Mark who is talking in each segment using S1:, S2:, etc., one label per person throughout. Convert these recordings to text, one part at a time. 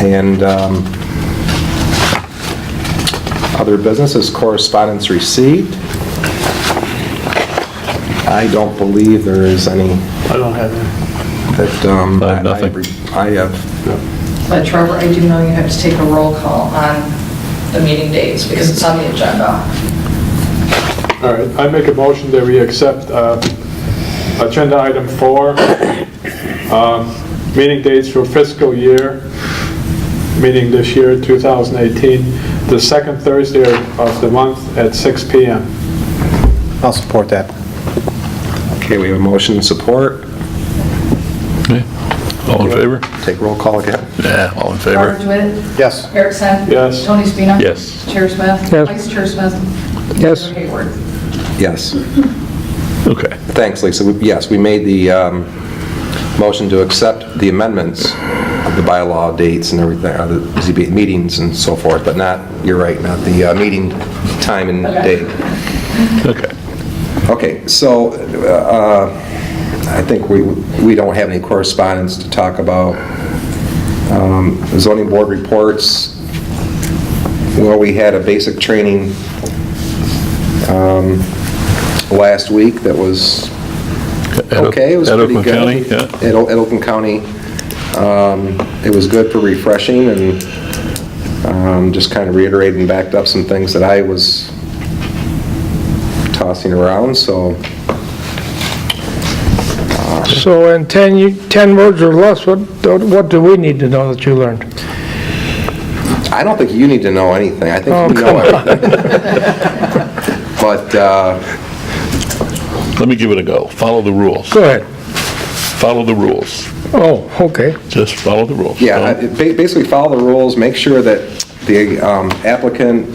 S1: And um, other businesses, correspondence received. I don't believe there is any
S2: I don't have any.
S1: that... um,
S3: I have nothing.
S1: I have,
S4: But Trevor, I do know you have to take a roll call on the meeting dates because it's on the agenda.
S2: All right, I make a motion that we accept uh, agenda item four, um, meeting dates for fiscal year, meeting this year, 2018, the second Thursday of the month at 6 PM.
S5: I'll support that.
S1: okay, we have a motion and support.
S3: Okay. All in favor?
S1: Take roll call again.
S3: Yeah, all in
S4: Robert
S3: favor.
S4: DeWitt?
S5: Yes.
S4: Erickson?
S2: Yes.
S4: Tony Spina?
S3: Yes.
S4: Chair Smith?
S6: Yes.
S4: Vice Chair Smith?
S6: Yes.
S4: Mayor Hayward?
S1: Yes.
S3: Okay.
S1: Thanks, Lisa. We- Yes, we made the um, motion to accept the amendments of the bylaw dates and everything, uh, the ZBA meetings and so forth, but not, you're right, not the uh, meeting time and
S4: Okay.
S1: date.
S3: Okay.
S1: Okay, so uh, I think we we don't have any correspondence to talk about. Um, Zoning board reports, well, we had a basic training um, last week that was
S3: At O-
S1: okay, it was
S3: at
S1: pretty
S3: Oakland
S1: good.
S3: County, yeah.
S1: At O- at Oakland County. Um, It was good for refreshing and um, just kind of reiterated and backed up some things that I was tossing around, so
S6: So in 10, you- 10 words or less, what, what do we need to know that you learned?
S1: I don't think you need to know anything. I think you know everything. But, uh,
S3: Let me give it a go. Follow the rules.
S6: Go ahead.
S3: Follow the rules.
S6: Oh, okay.
S3: Just follow the rules.
S1: yeah, I-
S3: Don't-
S1: ba- basically follow the rules, make sure that the um, applicant,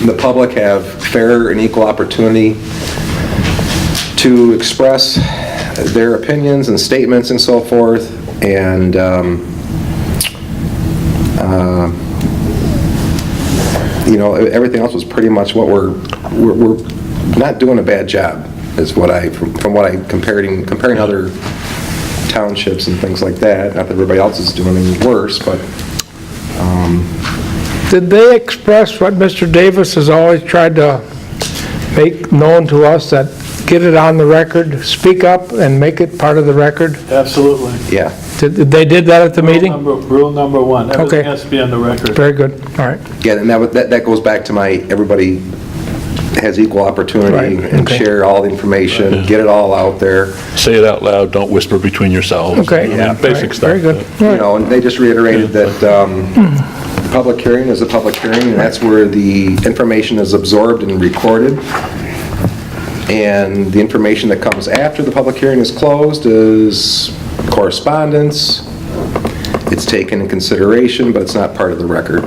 S1: and the public have fair and equal opportunity to express their opinions and statements and so forth, and um, uh, you know, e- everything else was pretty much what we're, we're we're not doing a bad job, is what I, from from what I comparing, comparing other townships and things like that, not that everybody else is doing any worse, but
S6: Did they express what Mr. Davis has always tried to make known to us, that get it on the record, speak up and make it part of the record?
S2: Absolutely.
S1: yeah.
S6: Did did they did that at the
S2: Um,
S6: meeting?
S2: Rule number one, everything
S6: Okay.
S2: has to be on the record.
S6: Very good, all right.
S1: Yeah, and that, would- that that goes back to my, everybody has equal opportunity
S6: Right,
S1: and
S6: okay.
S1: share all the information, get it all out there,
S3: Say it out loud, don't whisper between yourselves.
S6: Okay.
S3: I mean,
S1: Yeah.
S3: Basic stuff.
S6: Very good.
S1: you know, and they just reiterated that um, the public hearing is a public hearing, and that's where the information is absorbed and recorded, and the information that comes after the public hearing is closed is correspondence, it's taken in consideration, but it's not part of the record.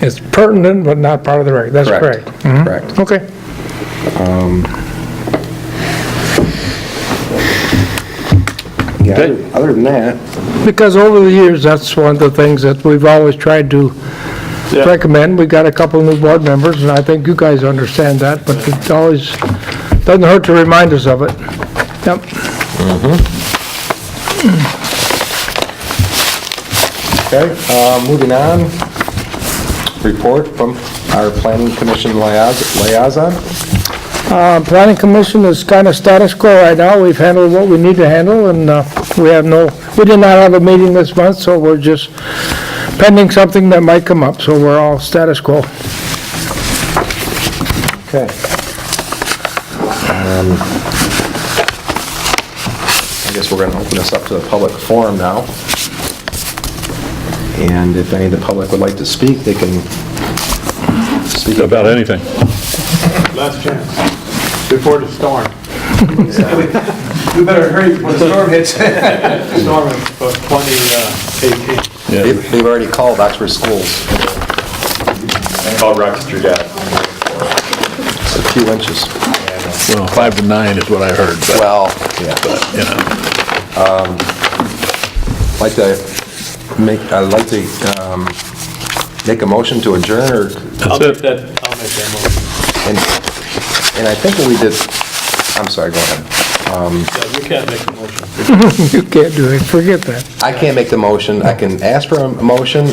S6: It's pertinent, but not part of the record, that's correct. Mhm.
S1: Correct.
S6: Okay.
S1: Yeah, other- Other than that,
S6: Because over the years, that's one of the things that we've always tried to
S2: Yeah.
S6: recommend. We've got a couple new board members, and I think you guys understand that, but it always, doesn't hurt to remind us of it. Yep.
S1: Okay, uh, moving on, report from our planning commission liais- liaison.
S6: Uh, Planning Commission is kind of status quo right now. We've handled what we need to handle, and uh, we have no, we did not have a meeting this month, so we're just pending something that might come up, so we're all status quo.
S1: Okay. Um, I guess we're going to open this up to the public forum now. And if any of the public would like to speak, they can speak
S3: About anything.
S2: Last chance, before the storm.
S5: We better hurry before the storm hits.
S2: Storm of 2018.
S3: Yeah.
S1: They've they've already called Oxford Schools.
S7: called Rochester Gas.
S1: It's a few inches.
S3: Well, five to nine is what I heard, but,
S1: Well, yeah.
S3: you know,
S1: Like to make, I'd like to um, make a motion to adjourn, or-
S2: I'll
S3: that's
S2: make
S3: it.
S2: that, I'll make that motion.
S1: and and I think what we did, I'm sorry, go ahead.
S2: Yeah, You can't make a motion.
S6: You can't do it, forget that.
S1: I can't make the motion, I can ask for a motion,